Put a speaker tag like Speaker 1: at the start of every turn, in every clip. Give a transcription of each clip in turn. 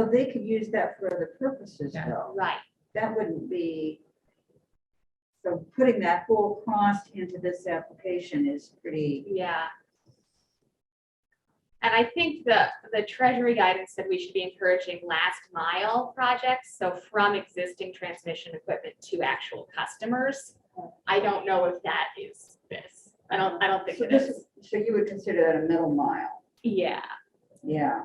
Speaker 1: So they could use that for other purposes
Speaker 2: Yeah.
Speaker 1: though.
Speaker 3: Right,
Speaker 1: That wouldn't be. So putting that whole cost into this application is pretty,
Speaker 3: yeah. And I think the, the treasury guidance said we should be encouraging last mile projects, so from existing transmission equipment to actual customers. I don't know if that is this. I don't, I don't think
Speaker 1: so
Speaker 3: it
Speaker 1: this
Speaker 3: is.
Speaker 1: is, so you would consider that a middle mile,
Speaker 3: Yeah,
Speaker 1: yeah.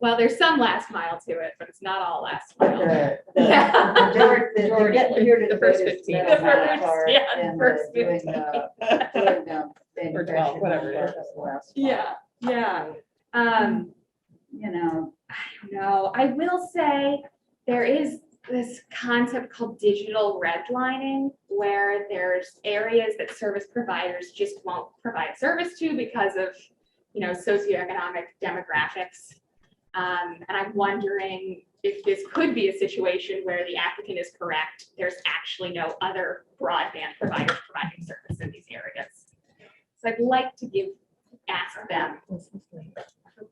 Speaker 3: well, there's some last mile to it, but it's not all last
Speaker 1: But
Speaker 3: mile.
Speaker 1: the- the-
Speaker 3: Yeah.
Speaker 1: the- they're- they're getting here to
Speaker 2: The first
Speaker 1: biggest
Speaker 2: 15.
Speaker 1: middle
Speaker 3: The
Speaker 1: mile
Speaker 3: first-
Speaker 1: part
Speaker 3: yeah, the
Speaker 1: and
Speaker 3: first
Speaker 1: doing, uh, doing, uh,
Speaker 2: Or 12,
Speaker 1: manufacturing
Speaker 2: whatever it
Speaker 1: part
Speaker 2: is.
Speaker 1: of the last mile.
Speaker 3: Yeah, yeah. Um,
Speaker 1: You know,
Speaker 3: I don't know. I will say there is this concept called digital redlining where there's areas that service providers just won't provide service to because of, you know, socioeconomic demographics. Um, and I'm wondering if this could be a situation where the applicant is correct. There's actually no other broadband provider providing service in these areas. So I'd like to give, ask them for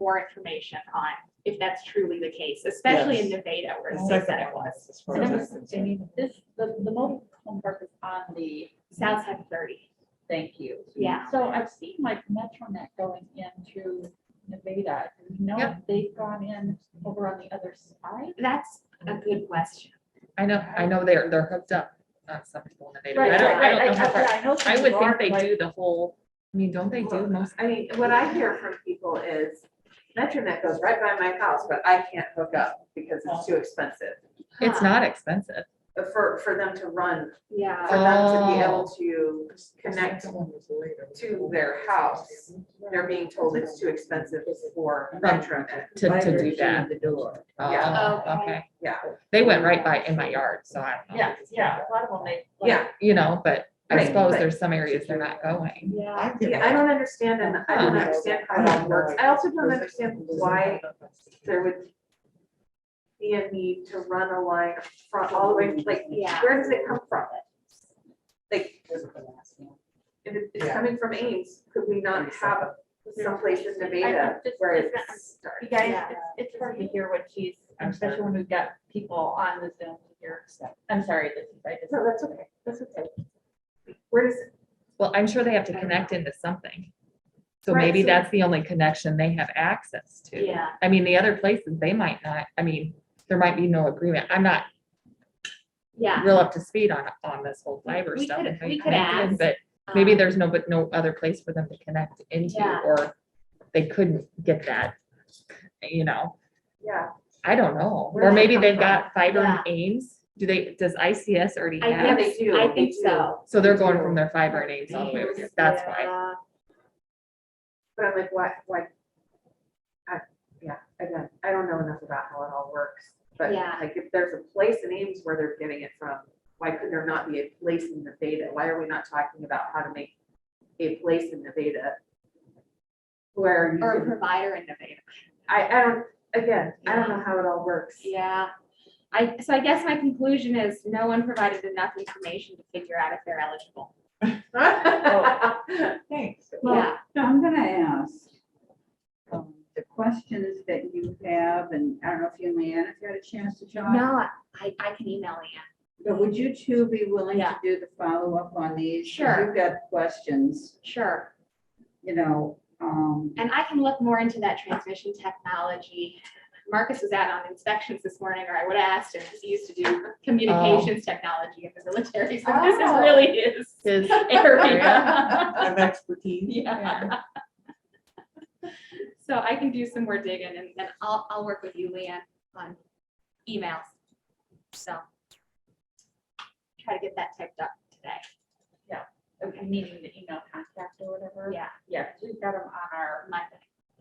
Speaker 3: more information on if that's truly the case, especially in Nevada where
Speaker 2: The
Speaker 3: they
Speaker 2: second
Speaker 3: said it
Speaker 2: one
Speaker 3: was.
Speaker 2: is as far as
Speaker 4: Number
Speaker 2: I'm concerned.
Speaker 4: This, the, the mobile home park is on the,
Speaker 3: South side of thirty,
Speaker 4: thank you.
Speaker 3: yeah.
Speaker 4: So I've seen like MetroNet going into Nevada. Do you know if they've gone in over on the other side?
Speaker 3: That's a good question.
Speaker 2: I know, I know they're, they're hooked up on some people in the
Speaker 3: Right,
Speaker 2: data. I don't, I don't know how far.
Speaker 4: I know
Speaker 2: I
Speaker 4: some
Speaker 2: would
Speaker 4: are,
Speaker 2: think they
Speaker 4: like-
Speaker 2: do the whole, I mean, don't they do most?
Speaker 5: I mean, what I hear from people is MetroNet goes right by my house, but I can't hook up because it's too expensive.
Speaker 2: It's not expensive.
Speaker 5: But For, for them to run,
Speaker 3: Yeah,
Speaker 5: for them to be
Speaker 2: Oh.
Speaker 5: able to connect to their house, they're being told it's too expensive for MetroNet.
Speaker 2: To,
Speaker 1: by
Speaker 2: to do
Speaker 1: virtue of
Speaker 2: that.
Speaker 1: The door.
Speaker 2: Oh,
Speaker 3: Yeah.
Speaker 2: okay.
Speaker 5: Yeah.
Speaker 2: They went right by in my yard, so I don't know.
Speaker 4: Yeah, yeah, a lot of them, they. like-
Speaker 5: Yeah,
Speaker 2: You know, but I
Speaker 5: Right,
Speaker 2: suppose
Speaker 5: but-
Speaker 2: there's some areas they're not going.
Speaker 3: yeah.
Speaker 5: yeah, I don't understand and I don't understand how that works. I also don't understand why there would be a need to run a line from all the way, like,
Speaker 3: Yeah.
Speaker 5: where does it come from? Like, If it- it's
Speaker 6: Yeah.
Speaker 5: coming from Ames, could we not have someplace in
Speaker 4: I
Speaker 5: Nevada
Speaker 4: think just-
Speaker 5: where
Speaker 4: it's not-
Speaker 5: it's
Speaker 4: You
Speaker 5: started?
Speaker 4: guys,
Speaker 3: Yeah.
Speaker 4: it's, it's hard to hear what she's,
Speaker 2: I'm sorry.
Speaker 4: especially when we've got people on the Zoom here. I'm sorry, this is, I just.
Speaker 5: No, that's okay, that's okay. Where does,
Speaker 2: Well, I'm sure they have to connect into something. So
Speaker 5: Right,
Speaker 2: maybe
Speaker 5: so-
Speaker 2: that's the only connection they have access to.
Speaker 3: Yeah,
Speaker 2: I mean, the other places, they might not, I mean, there might be no agreement. I'm not
Speaker 3: yeah.
Speaker 2: real up to speed on, on this whole fiber
Speaker 3: We
Speaker 2: stuff.
Speaker 3: could-
Speaker 2: and how you
Speaker 3: we could
Speaker 2: connect in,
Speaker 3: ask,
Speaker 2: But maybe
Speaker 3: Um,
Speaker 2: there's no, but no other place for them to connect into,
Speaker 3: Yeah.
Speaker 2: or they couldn't get that, you know,
Speaker 5: yeah,
Speaker 2: I don't know.
Speaker 5: Where
Speaker 2: Or
Speaker 5: did it
Speaker 2: maybe
Speaker 5: come
Speaker 2: they've
Speaker 5: from?
Speaker 2: got fiber and
Speaker 3: Yeah.
Speaker 2: Ames, do they, does ICS already
Speaker 3: I
Speaker 5: yeah,
Speaker 2: have?
Speaker 5: they
Speaker 3: think,
Speaker 5: do,
Speaker 3: I
Speaker 5: they
Speaker 3: think
Speaker 5: do.
Speaker 3: so.
Speaker 2: So they're going from their fiber and Ames all the way over here, that's why.
Speaker 3: Yeah.
Speaker 5: but I'm like, why, why? I, yeah, again, I don't know enough about how it all works, but
Speaker 3: Yeah.
Speaker 5: like, if there's a place in Ames where they're getting it from, why could there not be a place in Nevada? Why are we not talking about how to make a place in Nevada? Where you
Speaker 3: Or a
Speaker 5: can,
Speaker 3: provider in Nevada.
Speaker 5: I, I don't, again, I don't know how it all works.
Speaker 3: Yeah. I, so I guess my conclusion is no one provided enough information to figure out if they're eligible.
Speaker 6: Thanks.
Speaker 1: Well,
Speaker 3: Yeah,
Speaker 1: I'm gonna ask um, the questions that you have, and I don't know if you, and Leanne, if you had a chance to jot.
Speaker 3: no, I, I can email Ann.
Speaker 1: But would you two be willing to
Speaker 3: Yeah.
Speaker 1: do the follow-up on these? 'Cause
Speaker 3: Sure.
Speaker 1: You've got questions,
Speaker 3: Sure.
Speaker 1: you know, um,
Speaker 3: And I can look more into that transmission technology. Marcus was out on inspections this morning, or I would have asked him, because he used to do communications technology in the military, so this is
Speaker 5: Oh.
Speaker 3: really his
Speaker 2: Is-
Speaker 3: area.
Speaker 6: Of expertise.
Speaker 3: Yeah. So I can do some more digging and then I'll, I'll work with you, Leanne, on emails. So. Try to get that typed up today.
Speaker 4: Okay, meaning the email contact or whatever.
Speaker 3: Yeah,
Speaker 4: Yeah, 'cause we've got them on our,
Speaker 3: Monday.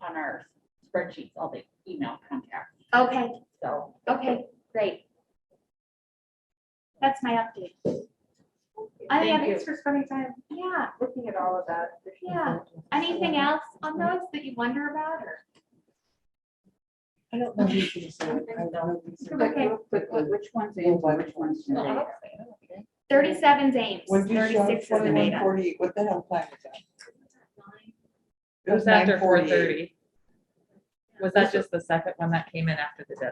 Speaker 4: on our spreadsheets, all the email contacts,
Speaker 3: Okay,
Speaker 4: so.
Speaker 3: okay, great. That's my update. I
Speaker 5: Thank
Speaker 3: have-
Speaker 5: you. Thanks for spending time
Speaker 3: Yeah,
Speaker 5: looking at all of that.
Speaker 3: yeah. Anything else on those that you wonder about or?
Speaker 6: I don't know. who's gonna say it. I don't know.
Speaker 3: Okay.
Speaker 1: but what- which one's in, which one's in?
Speaker 3: Thirty-seven's Ames,
Speaker 6: When you shot
Speaker 3: thirty-six is
Speaker 6: twenty-one
Speaker 3: Nevada.
Speaker 6: forty, what the hell time was that?
Speaker 2: It was after four
Speaker 6: 9:48.
Speaker 2: thirty. Was that just the second one that came in after the deadline?